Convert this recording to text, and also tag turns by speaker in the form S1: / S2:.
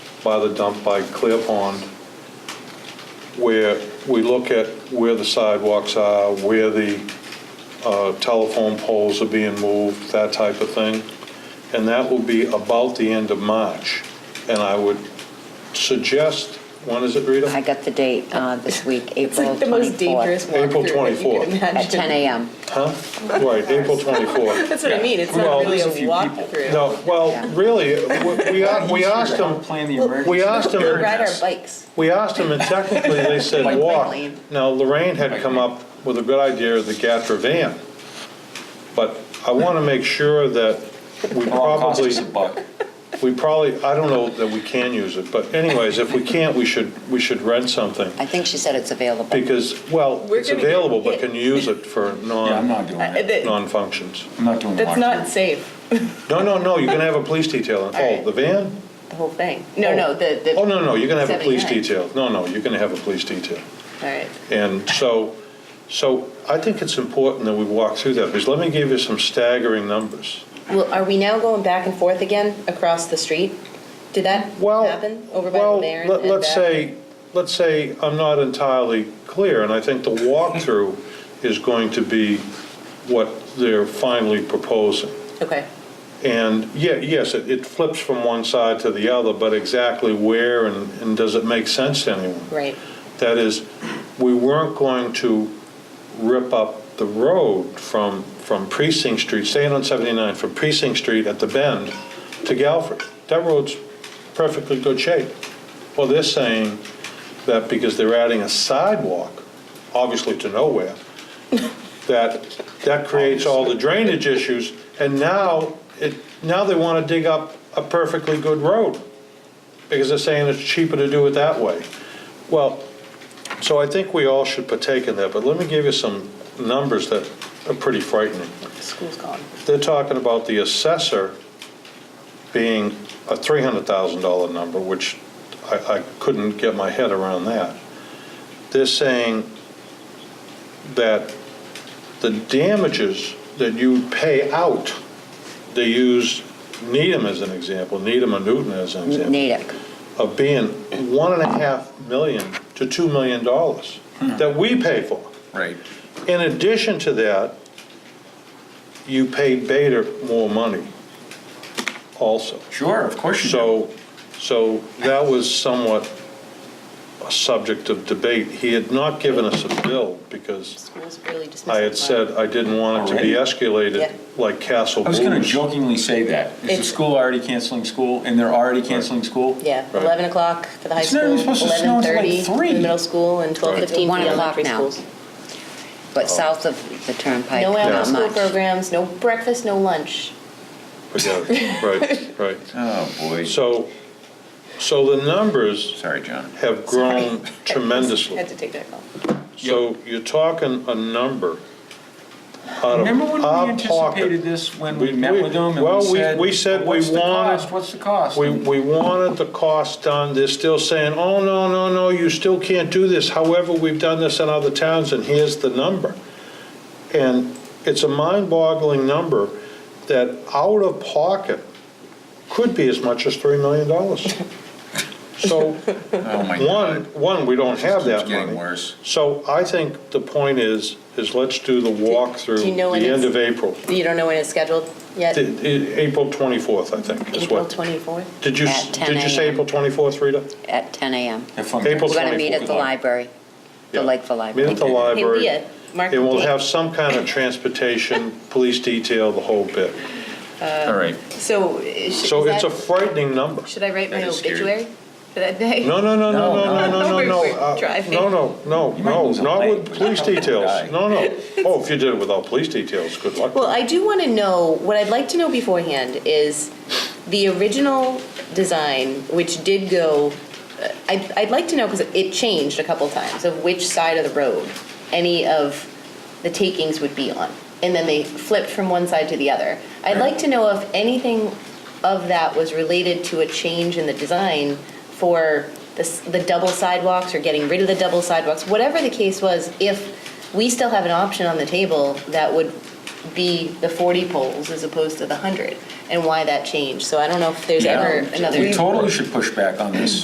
S1: by the dump by Clear Pond, where we look at where the sidewalks are, where the uh, telephone poles are being moved, that type of thing. And that will be about the end of March. And I would suggest, when is it, Rita?
S2: I got the date uh, this week, April 24th.
S3: It's like the most dangerous walkthrough
S1: April
S3: that you
S1: 24th.
S3: could imagine.
S2: At 10 a.m.
S1: Huh? Right, April 24th.
S3: That's what I mean, it's
S1: Well,
S3: not really a
S4: there's a few people.
S3: walkthrough.
S1: No, well, really, we- we a- we asked
S4: Don't
S1: them,
S4: Plan the emergency.
S1: we asked them-
S3: Ride our
S4: preparedness.
S3: bikes.
S1: we asked them, and technically, they said walk.
S2: lane.
S1: Now, Lorraine had come up with a good idea of the Gatra van, but I want to make sure that we
S4: It all costs
S1: probably,
S4: us a buck.
S1: we probably, I don't know that we can use it, but anyways, if we can't, we should, we should rent something,
S2: I think she said it's available.
S1: because, well,
S3: We're
S1: it's
S3: gonna get
S1: available, but
S3: hit.
S1: can you use it for
S4: Yeah, I'm
S1: non,
S4: not doing
S3: Uh,
S4: it.
S3: that-
S1: non-functions?
S4: I'm not doing a
S3: That's not
S4: walkthrough.
S3: safe,
S1: No, no, no, you're going to have a police detail,
S3: All
S1: oh,
S3: right.
S1: the van?
S3: the whole thing. No, no, the, the.
S1: Oh, no, no, you're going to have a police
S3: 79.
S1: detail. No, no, you're going to have a police detail.
S3: All right.
S1: And so, so I think it's important that we walk through that, because let me give you some staggering numbers.
S3: Well, are we now going back and forth again across the street? Did that
S1: Well,
S3: happen over by
S1: well,
S3: the mayor?
S1: let-
S3: and
S1: let's
S3: back?
S1: say, let's say I'm not entirely clear, and I think the walkthrough is going to be what they're finally proposing.
S3: Okay,
S1: And, yeah, yes, it it flips from one side to the other, but exactly where and and does it make sense to anyone?
S3: right.
S1: That is, we weren't going to rip up the road from, from Precinct Street, staying on 79, from Precinct Street at the bend to Galphie. That road's perfectly good shape. Well, they're saying that because they're adding a sidewalk, obviously to nowhere, that, that creates all the drainage issues, and now, it, now they want to dig up a perfectly good road, because they're saying it's cheaper to do it that way. Well, so I think we all should partake in that, but let me give you some numbers that are pretty frightening.
S3: School's gone.
S1: They're talking about the assessor being a $300,000 number, which I, I couldn't get my head around that. They're saying that the damages that you pay out, they use Needham as an example, Needham and Newton as an example
S2: Natick.
S1: of being one and a half million to two million dollars
S4: Hmm.
S1: that we pay for.
S4: Right.
S1: In addition to that, you pay Bader more money also.
S4: Sure, of course you do.
S1: So, so that was somewhat a subject of debate. He had not given us a bill because
S3: School's really just.
S1: I had
S3: missing fun.
S1: said I didn't want it to be escalated like Castle
S4: I was going to
S1: Blues.
S4: jokingly say that. Is the
S3: It's-
S4: school already canceling school and they're already canceling school?
S3: Yeah,
S1: Right.
S3: 11 o'clock for the high
S4: It's
S3: school,
S4: not even supposed to snow until like
S3: 11:30 for
S4: three.
S3: the middle school, and 12:15 for
S2: One o'clock
S3: the elementary
S2: now.
S3: schools.
S2: But south of the turnpike,
S3: No
S2: not
S3: after-school
S2: much.
S3: programs, no breakfast, no lunch.
S1: Forget it. Right, right.
S4: Oh, boy.
S1: So, so the numbers
S4: Sorry, John.
S1: have grown tremendously.
S3: Had to take that call.
S1: So you're talking a number out of
S4: Remember when
S1: our
S4: we
S1: pocket.
S4: anticipated this, when
S1: We-
S4: we met
S1: we-
S4: with them and
S1: well, we-
S4: we said?
S1: we said we
S4: "What's the
S1: wanted-
S4: cost? What's the cost?
S1: We, we wanted the cost done, they're still saying, oh, no, no, no, you still can't do this. However, we've done this in other towns and here's the number. And it's a mind-boggling number that out of pocket could be as much as $3 million. So,
S4: Oh, my
S1: one,
S4: God.
S1: one, we don't have
S4: Keeps
S1: that money.
S4: getting worse.
S1: So I think the point is, is let's do the
S3: do you
S1: walkthrough,
S3: know when
S1: the end of
S3: it's-
S1: April.
S3: You don't know when it's scheduled yet?
S1: The- i- April 24th, I think, is
S3: April
S1: what.
S3: 24th?
S1: Did you, s-
S2: At 10
S1: did you say
S2: a.m..
S1: April 24th, Rita?
S2: At 10 a.m.
S4: Have fun.
S1: April
S2: We're going to meet
S1: 24th.
S2: at the library, the
S1: Yeah.
S2: Lakeville
S1: Meet
S2: Library.
S1: at the
S3: Hey,
S1: library.
S3: Leah, mark
S1: And
S3: the
S1: we'll
S3: date.
S1: have some kind of transportation, police detail, the whole bit.
S4: All right.
S3: So, is-
S1: So
S3: is
S1: it's a
S3: that-
S1: frightening number.
S3: should I write my
S4: That is scary.
S3: obituary for that day?
S1: No, no, no, no, no, no, no, no,
S3: We're-
S1: no.
S3: we're
S1: Uh,
S3: driving.
S1: No, no, no,
S4: You might
S1: no,
S4: lose a
S1: not
S4: leg,
S1: with
S4: but
S1: police
S4: not with a
S1: details.
S4: guy.
S1: No, no. Oh, if you did it without police details, good luck.
S3: Well, I do want to know, what I'd like to know beforehand is the original design, which did go, uh, I'd, I'd like to know, because it changed a couple times, of which side of the road any of the takings would be on. And then they flipped from one side to the other. I'd like to know if anything of that was related to a change in the design for the, s- the double sidewalks or getting rid of the double sidewalks, whatever the case was, if we still have an option on the table that would be the 40 poles as opposed to the 100, and why that changed. So I don't know if there's
S4: Yeah.
S3: ever another.
S4: We totally should push back on this.